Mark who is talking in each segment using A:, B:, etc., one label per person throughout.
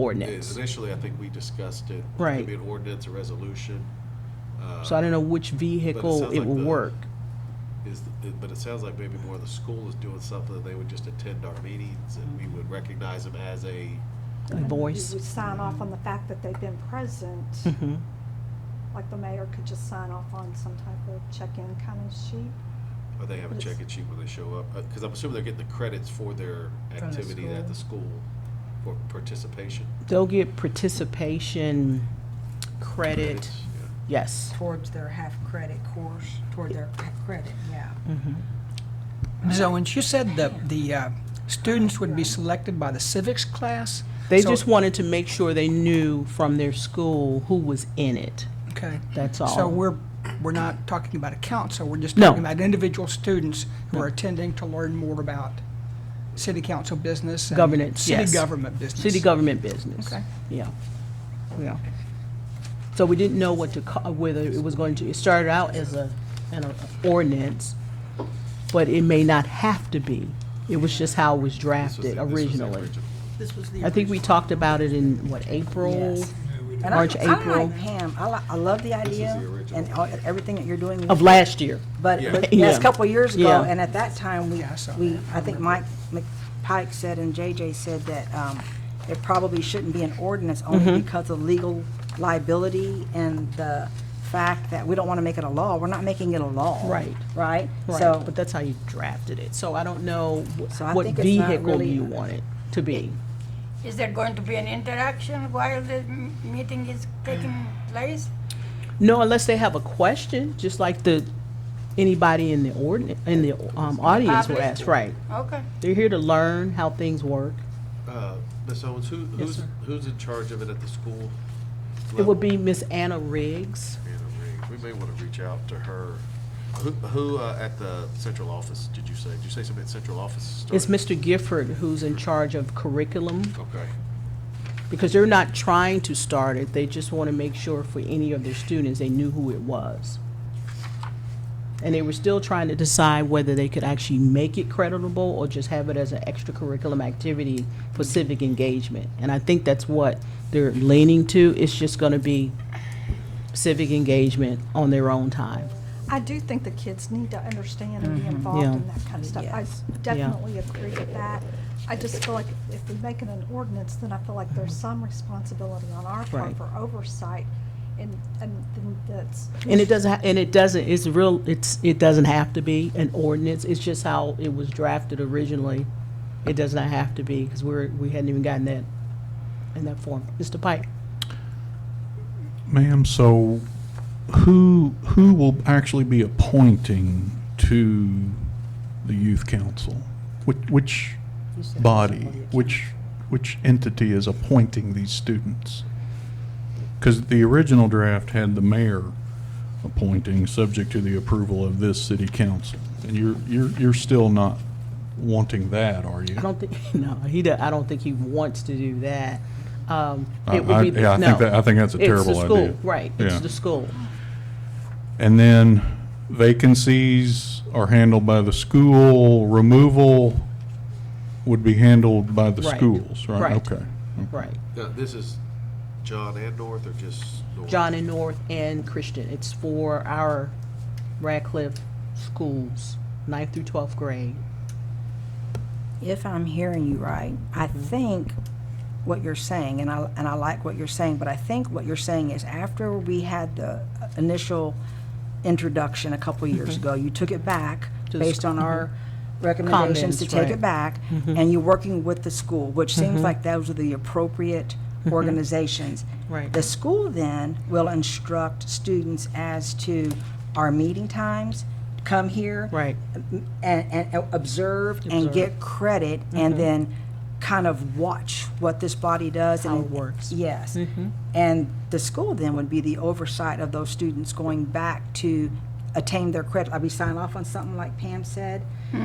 A: Yes,
B: ordinance.
A: Initially, I think we discussed it. It
B: Right.
A: could be an ordinance, a resolution. uh,
B: So I don't know which vehicle
A: sounds
B: it
A: like
B: will
A: the-
B: work.
A: Is, it- but it sounds like maybe more the school is doing something, they would just attend our meetings and we would recognize them as a,
B: A
C: And
B: voice.
C: You would sign off on the fact that they've been present,
B: Mhm.
C: like the mayor could just sign off on some type of check-in kind of sheet.
A: or they have a check-in sheet when they show up. Uh, Cause I'm assuming they're getting the credits for their activity at the school for participation.
B: They'll get participation credit,
A: Credits, yeah.
B: yes.
D: towards their half-credit course, toward their half credit, yeah.
E: So when she said the, the uh, students would be selected by the civics class?
B: They
E: so-
B: just wanted to make sure they knew from their school who was in it.
E: Okay.
B: That's
E: So
B: all.
E: we're, we're not talking about a council, we're just
B: Oh. No.
E: talking about individual students who are attending to learn more about city council business. and
B: Governance, yes.
E: City government business.
B: City government business.
E: Okay.
B: Yeah, yeah. So we didn't know what to, ca- whether it was going to, it started out as a, an ordinance, but it may not have to be. It was just how it was
A: This was
B: drafted
A: the- this was the
B: originally.
A: original.
F: This was the.
B: I think we
F: original.
B: talked about it in, what, April?
D: Yes.
E: government.
D: And I-
B: March,
D: I
B: April.
D: like Pam, I li- I love the
A: is
D: idea
A: the original.
D: and all- everything that you're doing.
B: Of last year.
D: But,
A: Yeah.
D: but, yes,
B: Yeah.
D: a couple of years ago,
B: Yeah.
D: and at that time, we,
E: Yeah, I saw
D: we,
E: that.
D: I think Mike Mc- Pike said and JJ said that, um, it probably shouldn't be an ordinance
B: Mm-hmm.
D: only because of legal liability and the fact that we don't want to make it a law. We're not making it a law.
B: Right.
D: Right?
B: Right,
D: So,
B: but that's how you drafted it. So I don't know wh-
D: So I
B: what
D: think it's not
B: vehicle
D: really-
B: you want it to be.
G: Is there going to be an interaction while the m- meeting is taking place?
B: No, unless they have a question, just like the, anybody in the ordinance, in the um, audience will
G: Public.
B: ask, right?
G: Okay.
B: They're here to learn how things work.
A: Uh, Ms. Owens, who, who's, who's in charge of it at the school?
B: It
A: level?
B: would be Miss Anna Riggs.
A: Anna Riggs. We may want to reach out to her. Who, who uh, at the central office, did you say? Did you say somebody at central office? started?
B: It's Mr. Gifford who's in charge of curriculum,
A: Okay.
B: because they're not trying to start it. They just want to make sure for any of their students, they knew who it was. And they were still trying to decide whether they could actually make it creditable or just have it as an extracurriculum activity for civic engagement. And I think that's what they're leaning to. It's just going to be civic engagement on their own time.
C: I do think the kids need to understand and be involved in
B: Mm-hmm. Yeah.
C: that kind of stuff. I s- definitely agree with that. I just feel like if we make it an ordinance, then I feel like there's some responsibility on our
B: Right.
C: part for oversight. And, and then that's.
B: And it doesn't, ha- and it doesn't, it's real, it's, it doesn't have to be an ordinance, it's just how it was drafted originally. It does not have to be, because we're, we hadn't even gotten that in that form. Mr. Pike?
H: Ma'am, so who, who will actually be appointing to the youth council? Which, which body, which, which entity is appointing these students? Because the original draft had the mayor appointing, subject to the approval of this city council. And you're, you're, you're still not wanting that, are you?
B: I don't think, no, he, do- I don't think he wants to do that. Um,
H: I-
B: it would be,
H: I- yeah, I
B: no.
H: think that- I think that's a terrible
B: It's
H: idea.
B: the school, right,
H: Yeah.
B: it's the school.
H: And then vacancies are handled by the school, removal would be handled by the
B: Right.
H: schools, right?
B: Right.
H: Okay.
B: Right.
A: Now, this is John and North or just North?
B: John and North and Christian, it's for our Radcliffe schools, ninth through twelfth grade.
D: if I'm hearing you right, I
B: Mm-hmm.
D: think what you're saying, and I, and I like what you're saying, but I think what you're saying is after we had the initial introduction a couple years ago, you took it back
B: Mm-hmm. To the
D: based
B: sc- mm-hmm.
D: on our recommendations to
B: Comments,
D: take
B: right. Mm-hmm.
D: it back, and you're working with the school, which seems like those are the appropriate organizations.
B: Mm-hmm. Right.
D: The school then will instruct students as to our meeting times, come here.
B: Right.
D: And, and observe and get credit and then kind of watch what this body does.
B: How
D: and
B: it works. Mm-hmm.
D: Yes. And the school then would be the oversight of those students going back to attain their credit. Like we sign off on something like Pam said.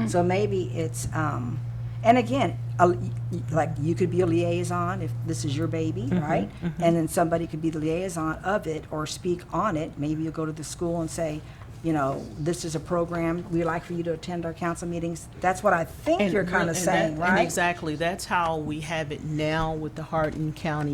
D: So maybe it's, um, and again, a- like you could be a liaison if this is your baby,
B: Mm-hmm,
D: right? And then somebody could be the liaison of it or speak on it. Maybe you go to the school and say, you know, this is a program, we like for you to attend our council meetings. That's what I think
B: And
D: you're
B: real-
D: kind
B: and
D: of
B: that-
D: saying, right?
B: And exactly, that's how we have it now with the Hardin County